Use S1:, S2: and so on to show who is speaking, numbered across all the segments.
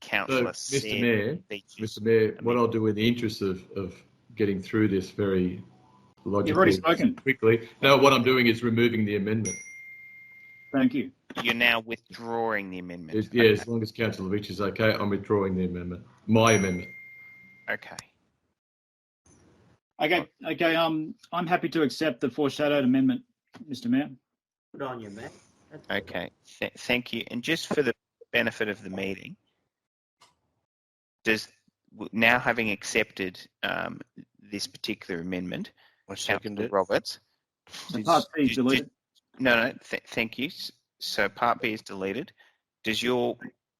S1: councillor
S2: So, Mr. Mayor, Mr. Mayor, what I'll do in the interest of, of getting through this very logically,
S3: You've already spoken.
S2: quickly. No, what I'm doing is removing the amendment.
S3: Thank you.
S1: You're now withdrawing the amendment.
S2: It- yeah, as long as Councillor Veitch is okay, I'm withdrawing the amendment. My amendment.
S1: Okay.
S3: Okay, okay. Um, I'm happy to accept the foreshadowed amendment, Mr. Mayor.
S4: Good on you, Matt. That's good.
S1: Okay. Th- thank you. And just for the benefit of the meeting, does w- now having accepted um, this particular amendment,
S5: I second
S1: Councillor
S5: it.
S1: Roberts,
S3: The part B is
S1: did- did-
S3: deleted.
S1: No, no. Th- thank you. S- So part B is deleted. Does your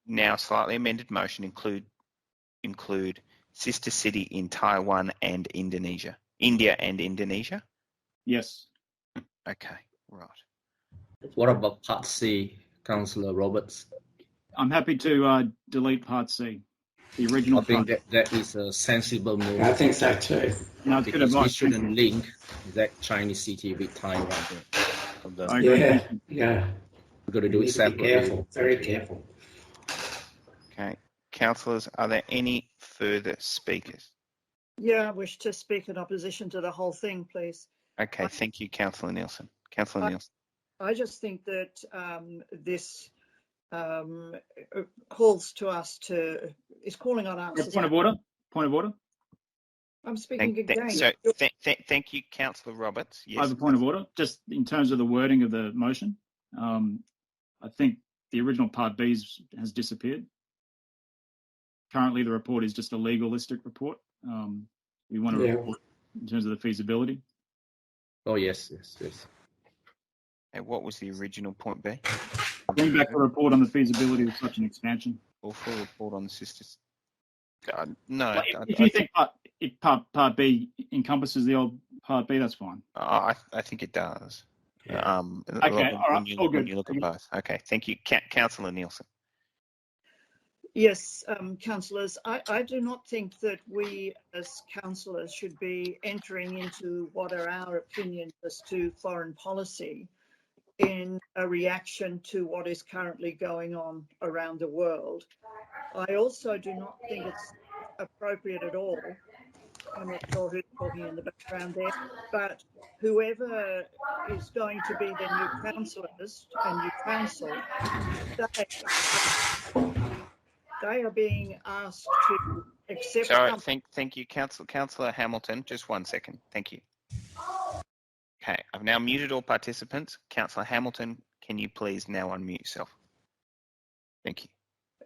S1: now slightly amended motion include include sister city in Taiwan and Indonesia, India and Indonesia?
S3: Yes.
S1: Okay, right.
S6: What about Part C, Councillor Roberts?
S3: I'm happy to uh, delete part C, the
S6: I
S3: original
S6: think
S3: part.
S6: that, that is a sensible move.
S4: I think so too.
S3: No, it's good
S6: because we
S3: advice. Thank
S6: shouldn't link that Chinese city with Taiwan.
S3: you.
S5: Done.
S3: I agree.
S4: Yeah, yeah.
S6: We're going to
S4: You need to
S6: do it
S4: be
S6: separately.
S4: careful, very careful.
S1: Okay, councillors, are there any further speakers?
S7: Yeah, I wish to speak in opposition to the whole thing, please.
S1: Okay, thank you, councillor Nielsen. Councillor
S7: Aye.
S1: Nielsen.
S7: I just think that um, this um, uh, calls to us to, is calling on us. as-
S3: Point of order. Point of order.
S7: I'm speaking
S1: Thank,
S7: again.
S1: thank, so, th- th- thank you, councillor Roberts.
S3: I
S1: Yes.
S3: have a point of order, just in terms of the wording of the motion. Um, I think the original part B is- has disappeared. Currently, the report is just a legalistic report. Um, we want to
S4: Yeah.
S3: report in terms of the feasibility.
S6: Oh, yes, yes, yes.
S1: And what was the original point B?
S3: Bring back the report on the feasibility of such an expansion.
S1: Or full report on the sisters? Uh, no, I,
S3: If- If
S1: I-
S3: you think part, if part, part B encompasses the old part B, that's fine.
S1: I, Uh, I think it does.
S4: Yeah.
S1: Um,
S3: Okay,
S1: when,
S3: all right,
S1: you,
S3: all
S1: when
S3: good.
S1: you look at both. Okay, thank you, Ca- councillor Nielsen.
S7: Yes, um, councillors, I, I do not think that we as councillors should be entering into what are our opinions as to foreign policy in a reaction to what is currently going on around the world. I also do not think it's appropriate at all. I'm not sure who's talking in the background there, but whoever is going to be the new councillors and new council, they they are being asked to accept.
S1: Sorry,
S7: some-
S1: thank, thank you, council, councillor Hamilton. Just one second. Thank you. Okay, I've now muted all participants. Councillor Hamilton, can you please now unmute yourself? Thank you.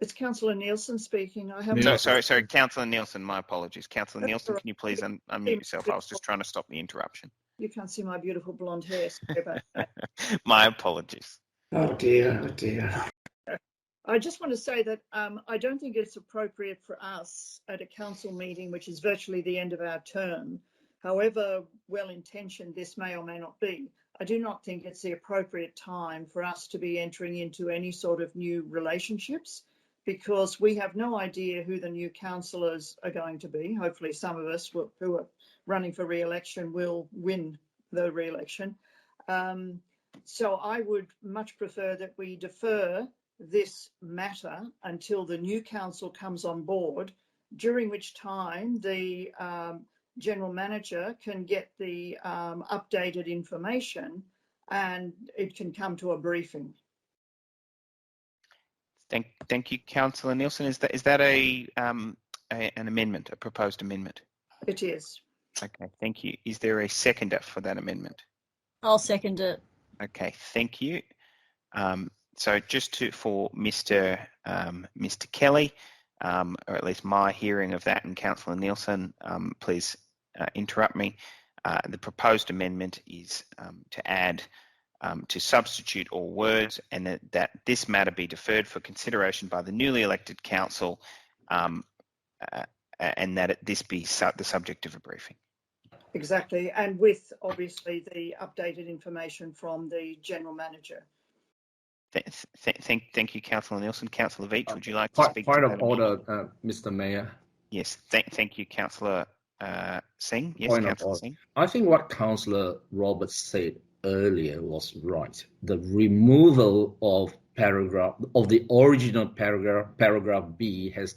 S7: It's councillor Nielsen speaking. I have.
S2: Yeah.
S1: No, sorry, sorry, councillor Nielsen. My apologies, councillor
S7: That's
S1: Nielsen.
S7: all right.
S1: Can you please un- unmute yourself? I was just trying to stop the interruption.
S7: You can't see my beautiful blonde hair. Sorry about that.
S1: My apologies.
S4: Oh dear, oh dear.
S7: I just want to say that um, I don't think it's appropriate for us at a council meeting, which is virtually the end of our term, however well intentioned this may or may not be, I do not think it's the appropriate time for us to be entering into any sort of new relationships because we have no idea who the new councillors are going to be. Hopefully, some of us will, who are running for re election will win the re election. Um, so I would much prefer that we defer this matter until the new council comes on board, during which time the um, general manager can get the um, updated information and it can come to a briefing.
S1: Thank, thank you, councillor Nielsen. Is that is that a, um, a an amendment, a proposed amendment?
S7: It is.
S1: Okay, thank you. Is there a seconder for that amendment?
S8: I'll second it.
S1: Okay, thank you. Um, so just to, for Mr. Um, Mr. Kelly, um, or at least my hearing of that, and Councillor Nielsen, um, please uh, interrupt me. Uh, the proposed amendment is um, to add um, to substitute all words, and that, that this matter be deferred for consideration by the newly elected council, um, uh, and that it, this be su- the subject of a briefing.
S7: Exactly. And with obviously the updated information from the general manager.
S1: Th- th- thank, thank you, Councillor Nielsen. Councillor Veach,
S6: Uh,
S1: would you like to
S6: Point,
S1: speak? to
S6: point
S1: that
S6: of
S1: amendment?
S6: order, uh, Mr. Mayor.
S1: Yes, thank, thank you, Councillor uh, Singh. Yes,
S6: Point of
S1: Councillor
S6: order.
S1: Singh.
S6: I think what Councillor Roberts said earlier was right. The removal of paragraph of the original paragraph paragraph b has